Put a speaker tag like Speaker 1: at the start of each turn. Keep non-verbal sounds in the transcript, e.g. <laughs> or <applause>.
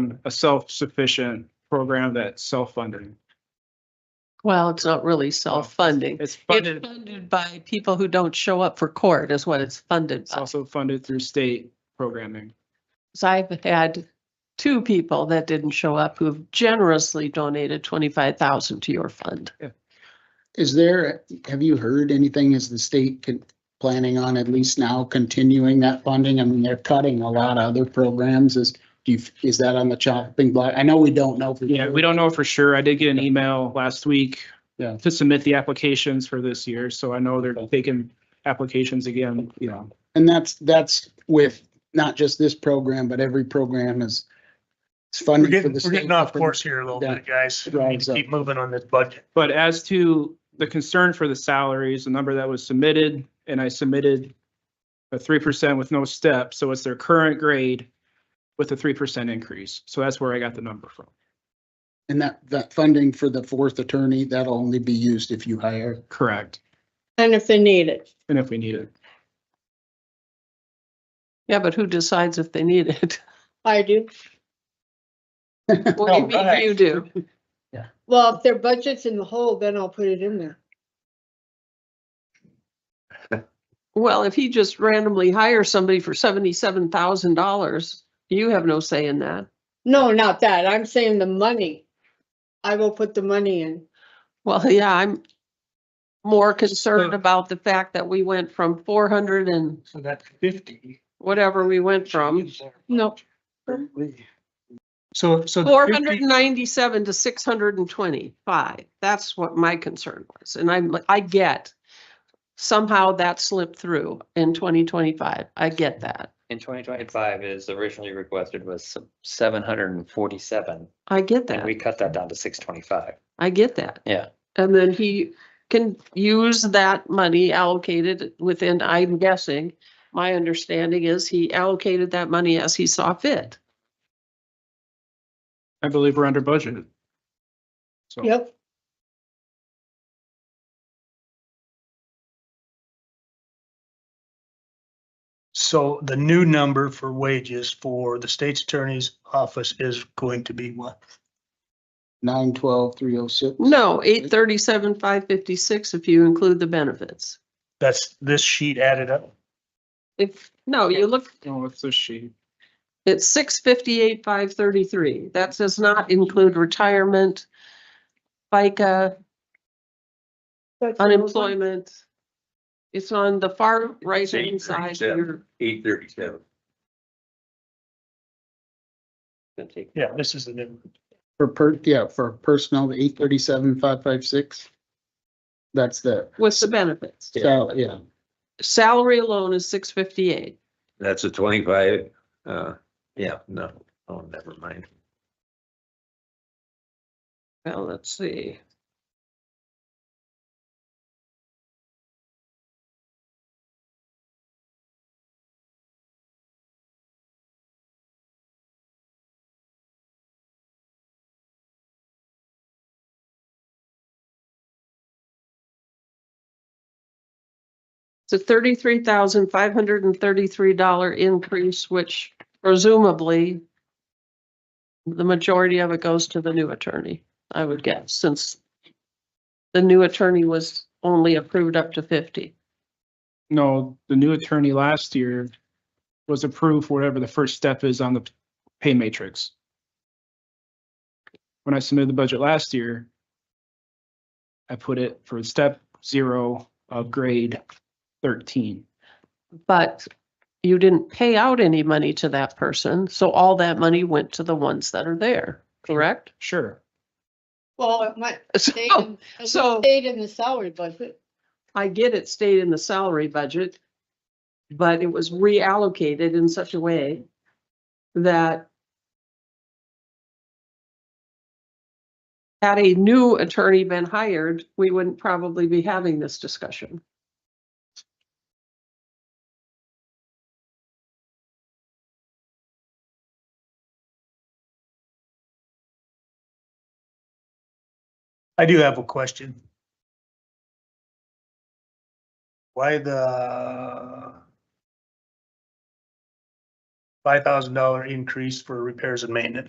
Speaker 1: um, a self-sufficient program that's self-funding.
Speaker 2: Well, it's not really self-funding.
Speaker 1: It's
Speaker 2: It's
Speaker 1: funded,
Speaker 2: funded by people who don't show up for court is what it's funded
Speaker 1: it's
Speaker 2: by.
Speaker 1: also funded through state programming.
Speaker 2: So I've had two people that didn't show up who've generously donated twenty-five thousand to your fund.
Speaker 3: Is there, have you heard anything, is the state con- planning on at least now continuing that funding? I mean, they're cutting a lot of other programs. Is, do you, is that on the chopping block? I know we don't know. for
Speaker 1: Yeah,
Speaker 3: sure.
Speaker 1: we don't know for sure. I did get an email last week
Speaker 3: Yeah.
Speaker 1: to submit the applications for this year, so I know they're taking applications again, you know.
Speaker 3: And that's, that's with not just this program, but every program is it's
Speaker 4: We're
Speaker 3: funding for
Speaker 4: getting,
Speaker 3: the
Speaker 4: we're
Speaker 3: state.
Speaker 4: getting off course here a little
Speaker 3: Yeah.
Speaker 4: bit, guys. We need
Speaker 3: Drives
Speaker 4: to
Speaker 3: up.
Speaker 4: Keep moving on this budget.
Speaker 1: But as to the concern for the salaries, the number that was submitted, and I submitted a three percent with no step, so it's their current grade with a three percent increase. So that's where I got the number from.
Speaker 3: And that, that funding for the fourth attorney, that'll only be used if you hire.
Speaker 1: Correct.
Speaker 5: And if they need it,
Speaker 1: And if we need it.
Speaker 2: Yeah, but who decides if they need
Speaker 1: <laughs>
Speaker 2: it?
Speaker 5: I do.
Speaker 1: Oh,
Speaker 2: Well, you mean you do.
Speaker 5: Well, if their budget's in the hole, then I'll put it in there.
Speaker 2: Well, if he just randomly hires somebody for seventy-seven thousand dollars, you have no say in that.
Speaker 5: No, not that. I'm saying the money. I will put the money in.
Speaker 2: Well, yeah, I'm more concerned about the fact that we went from four hundred and
Speaker 4: So that's fifty.
Speaker 2: whatever we went from,
Speaker 5: No.
Speaker 4: So, so. the
Speaker 2: four hundred
Speaker 4: 50
Speaker 2: and ninety-seven to six hundred and twenty-five. That's what my concern was. And I'm, like, I get somehow that slipped through in twenty twenty-five. I get that.
Speaker 6: In twenty twenty-five is originally requested was seven hundred and forty-seven,
Speaker 2: I get
Speaker 6: and
Speaker 2: that.
Speaker 6: we cut that down to six twenty-five.
Speaker 2: I get that.
Speaker 6: Yeah.
Speaker 2: And then he can use that money allocated within, I'm guessing, my understanding is he allocated that money as he saw fit.
Speaker 1: I believe we're under budget. So
Speaker 5: Yep.
Speaker 4: So the new number for wages for the state's attorney's office is going to be what?
Speaker 3: Nine, twelve, three oh six.
Speaker 2: No, eight thirty-seven, five fifty-six, if you include the benefits.
Speaker 4: That's this sheet added up.
Speaker 2: If, no, you look,
Speaker 1: you know, what's this Oh, sheet?
Speaker 2: it's six fifty-eight, five thirty-three. That does not include retirement, FICA,
Speaker 5: That's the old one.
Speaker 2: unemployment. It's on the far right-hand side of your
Speaker 6: Eight thirty-seven.
Speaker 4: Yeah, this is the new.
Speaker 3: For per, yeah, for personnel, eight thirty-seven, five, five, six. That's the,
Speaker 2: with the benefits.
Speaker 3: sal- yeah.
Speaker 2: Salary alone is six fifty-eight.
Speaker 7: That's a twenty-five, uh, yeah, no, oh, never mind.
Speaker 2: Well, let's see. It's a thirty-three thousand five hundred and thirty-three dollar increase, which presumably the majority of it goes to the new attorney. I would guess, since the new attorney was only approved up to fifty.
Speaker 1: No, the new attorney last year was approved for whatever the first step is on the pay matrix. When I submitted the budget last year, I put it for step zero of grade thirteen.
Speaker 2: But you didn't pay out any money to that person, so all that money went to the ones that are there, correct?
Speaker 1: Sure.
Speaker 5: Well, it might
Speaker 2: <laughs>
Speaker 5: stay
Speaker 2: So
Speaker 5: in, it
Speaker 2: Oh, so-
Speaker 5: stayed in the salary budget.
Speaker 2: I get it stayed in the salary budget, but it was reallocated in such a way that had a new attorney been hired, we wouldn't probably be having this discussion.
Speaker 4: I do have a question. Why the five thousand dollar increase for repairs and maintenance?